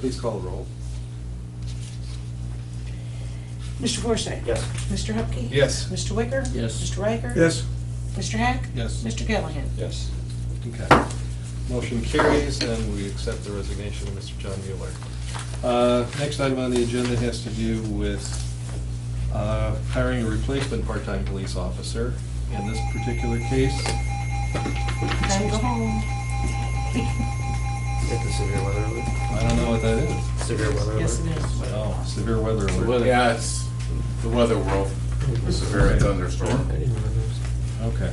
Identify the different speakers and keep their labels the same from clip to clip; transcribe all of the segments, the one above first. Speaker 1: Please call the roll.
Speaker 2: Mr. Forsythe?
Speaker 3: Yes.
Speaker 2: Mr. Hupkey?
Speaker 4: Yes.
Speaker 2: Mr. Wicker?
Speaker 3: Yes.
Speaker 2: Mr. Riker?
Speaker 4: Yes.
Speaker 2: Mr. Hack?
Speaker 4: Yes.
Speaker 2: Mr. Callahan?
Speaker 4: Yes.
Speaker 1: Okay.
Speaker 4: Motion carries, and we accept the resignation of Mr. John Mueller. Uh, Next item on the agenda has to do with uh, hiring a replacement part-time police officer. In this particular case,
Speaker 2: Time to go home.
Speaker 3: Is that the severe weather alert?
Speaker 4: I don't know what that is.
Speaker 3: Severe weather alert?
Speaker 2: Yes, it is.
Speaker 4: Oh, severe weather
Speaker 5: The
Speaker 4: alert.
Speaker 5: weather- Yeah, it's the weather world. It's a very thunderstorm.
Speaker 3: I didn't remember.
Speaker 4: Okay.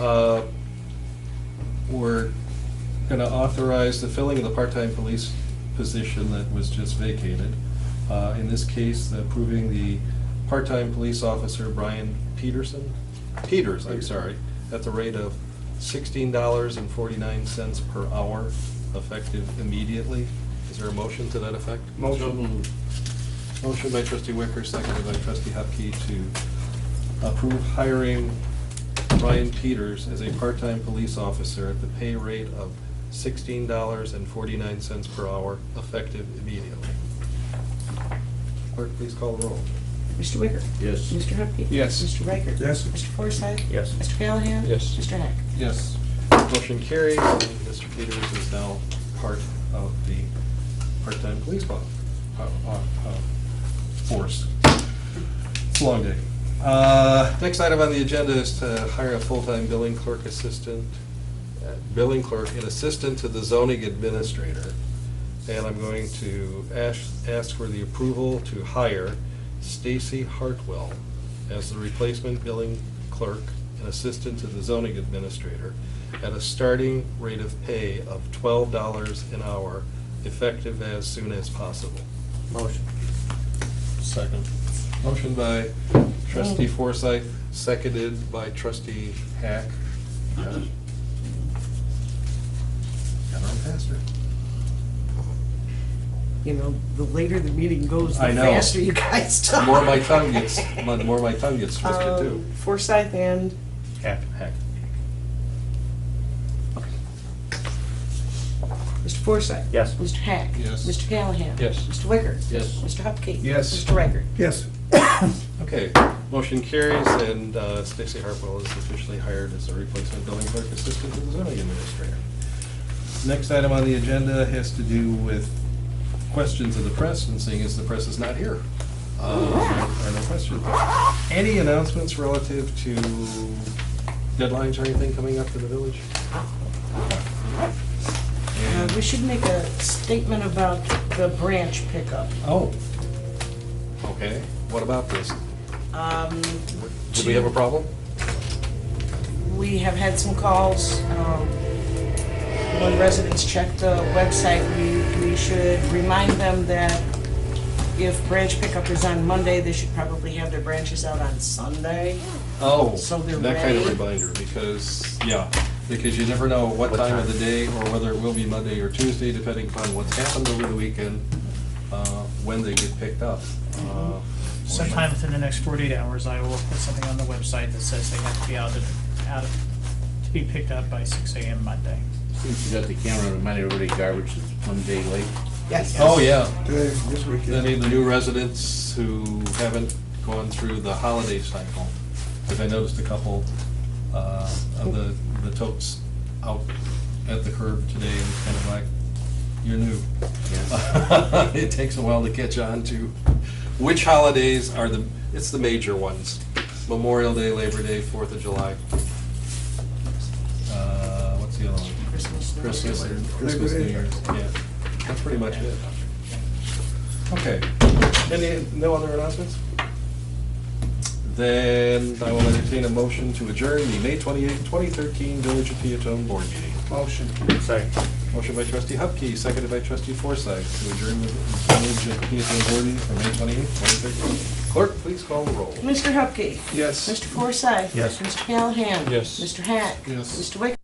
Speaker 4: Uh, We're gonna authorize the filling of the part-time police position that was just vacated. Uh, In this case, approving the part-time police officer Brian Peterson, Peters, I'm sorry, at the rate of sixteen dollars and forty-nine cents per hour, effective immediately. Is there a motion to that effect?
Speaker 5: Mm-hmm.
Speaker 3: Motion.
Speaker 4: Motion by trustee Wicker, seconded by trustee Hupkey to approve hiring Ryan Peters as a part-time police officer at the pay rate of sixteen dollars and forty-nine cents per hour, effective immediately. Clerk, please call the roll.
Speaker 2: Mr. Wicker?
Speaker 5: Yes.
Speaker 2: Mr. Hupkey?
Speaker 4: Yes.
Speaker 2: Mr. Riker?
Speaker 1: Yes.
Speaker 2: Mr. Forsythe?
Speaker 3: Yes.
Speaker 2: Mr. Callahan?
Speaker 4: Yes.
Speaker 2: Mr. Hack?
Speaker 4: Yes. Motion carries, and Mr. Peters is now part of the part-time police po- po- po- po- force. It's a long day. Uh, Next item on the agenda is to hire a full-time billing clerk assistant, uh, billing clerk and assistant to the zoning administrator. And I'm going to ask, ask for the approval to hire Stacy Hartwell as the replacement billing clerk and assistant to the zoning administrator at a starting rate of pay of twelve dollars an hour, effective as soon as possible.
Speaker 3: Motion.
Speaker 4: Second. Motion by trustee Forsythe, seconded by trustee Hack. Got it? Got on faster.
Speaker 2: You know, the later the meeting goes,
Speaker 4: I
Speaker 2: the
Speaker 4: know.
Speaker 2: faster you guys
Speaker 4: The
Speaker 2: talk.
Speaker 4: more my tongue gets, the more my tongue gets twisted too.
Speaker 2: Um, Forsythe and,
Speaker 4: Hack. Hack.
Speaker 2: Mr. Forsythe?
Speaker 3: Yes.
Speaker 2: Mr. Hack?
Speaker 4: Yes.
Speaker 2: Mr. Callahan?
Speaker 4: Yes.
Speaker 2: Mr. Wicker?
Speaker 5: Yes.
Speaker 2: Mr. Hupkey?
Speaker 4: Yes.
Speaker 2: Mr. Riker?
Speaker 1: Yes.
Speaker 4: Okay, motion carries, and uh, Stacy Hartwell is officially hired as a replacement building clerk assistant to the zoning administrator. Next item on the agenda has to do with questions of the press, and seeing as the press is not here. uh, There are no questions. Any announcements relative to deadlines or anything coming up to the village?
Speaker 2: Uh, We should make a statement about the branch pickup.
Speaker 4: Oh, okay, what about this?
Speaker 2: Um,
Speaker 4: Do we have a problem?
Speaker 2: We have had some calls. um, When residents check the website, we, we should remind them that if branch pickup is on Monday, they should probably have their branches out on Sunday.
Speaker 4: Oh,
Speaker 2: So they're
Speaker 4: that kind of
Speaker 2: ready?
Speaker 4: reminder, because, yeah, because you never know what
Speaker 3: What
Speaker 4: time of
Speaker 3: time?
Speaker 4: the day, or whether it will be Monday or Tuesday, depending upon what's happened over the weekend, uh, when they get picked up. Uh,
Speaker 6: Sometime within the next forty-eight hours, I will put something on the website that says they have to be out of, out of, to be picked up by six AM Monday.
Speaker 5: Since you got the camera, remind everybody garbage is one day late.
Speaker 2: Yes.
Speaker 4: Oh, yeah,
Speaker 1: Today, this weekend.
Speaker 4: any of the new residents who haven't gone through the holiday cycle, because I noticed a couple uh, of the, the totes out at the curb today, and kind of like, you're new. It takes a while to catch on to which holidays are the, it's the major ones, Memorial Day, Labor Day, Fourth of July. Uh, What's the other one?
Speaker 2: Christmas. New Year's.
Speaker 4: Christmas and
Speaker 1: Christmas,
Speaker 4: Christmas, New
Speaker 1: New
Speaker 4: Year's, yeah. That's pretty much it. Okay. Any, no other announcements? Then I will entertain a motion to adjourn the May 28, 2013 Village of Peatone Board Meeting.
Speaker 1: Motion.
Speaker 3: Second.
Speaker 4: Motion by trustee Hupkey, seconded by trustee Forsythe, to adjourn the Village of Peatone Board Meeting for May 28, 2013. Clerk, please call the roll.
Speaker 2: Mr. Hupkey.
Speaker 1: Yes.
Speaker 2: Mr. Forsythe.
Speaker 3: Yes.
Speaker 2: Mr. Callahan.
Speaker 4: Yes.
Speaker 2: Mr. Hack.
Speaker 4: Yes.
Speaker 2: Mr. Wicker.